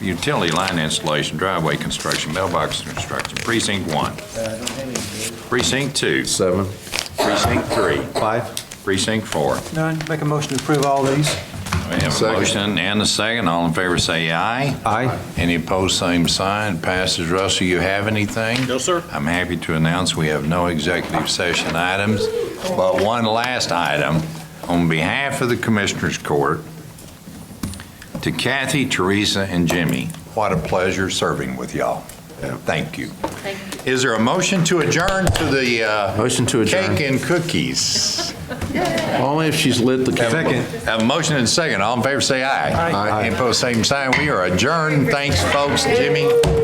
utility line installation, driveway construction, mailbox construction, precinct one. Precinct two, Seven. precinct three, Five. precinct four. None, make a motion to approve all these. We have a Second. motion and a second. All in favor say aye. Aye. Any opposed, same sign. Passes. Russell, you have anything? No, sir. I'm happy to announce we have no executive session items, but one last item. On behalf of the Commissioners Court, to Kathy, Teresa, and Jimmy, what a pleasure serving with y'all. Thank you. Thank you. Is there a motion to adjourn to the uh, Motion to adjourn. cake and cookies? Only if she's lit the candle. Have a motion and a second. All in favor, say aye. Aye. Any opposed, same sign. We are adjourned. Thanks, folks. Jimmy?